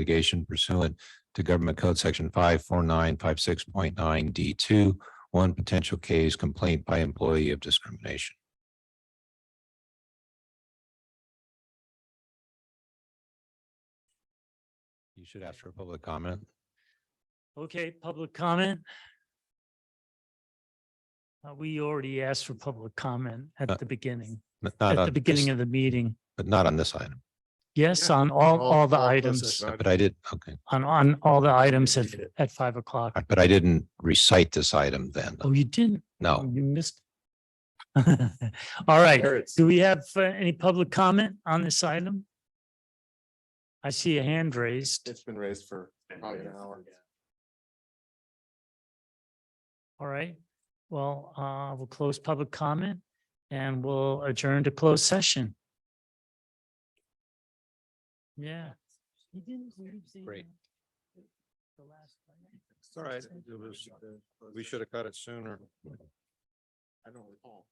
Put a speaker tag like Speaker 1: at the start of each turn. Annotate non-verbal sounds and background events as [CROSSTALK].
Speaker 1: litigation pursuant to Government Code Section five four nine five six point nine D two. One potential case complaint by employee of discrimination. You should ask for a public comment.
Speaker 2: Okay, public comment. Uh, we already asked for public comment
Speaker 1: Uh,
Speaker 2: at the beginning,
Speaker 1: Not
Speaker 2: at
Speaker 1: on
Speaker 2: the beginning
Speaker 1: this-
Speaker 2: of the meeting.
Speaker 1: But not on this item,
Speaker 2: Yes,
Speaker 3: Yeah,
Speaker 2: on all,
Speaker 3: all-
Speaker 2: all the
Speaker 3: all those
Speaker 2: items,
Speaker 3: that-
Speaker 1: but I did, okay,
Speaker 2: on, on all the items at, at five o'clock.
Speaker 1: but I didn't recite this item then.
Speaker 2: Oh, you didn't,
Speaker 1: No.
Speaker 2: Oh, you missed. [LAUGHS] All right, do we have uh, any public comment on this item? I see a hand raised.
Speaker 3: It's been raised for probably an hour.
Speaker 2: All right. Well, uh, we'll close public comment and we'll adjourn to closed session. Yeah.
Speaker 1: Great.
Speaker 3: It's all right. It was- We should
Speaker 1: have cut it sooner.
Speaker 3: I don't recall.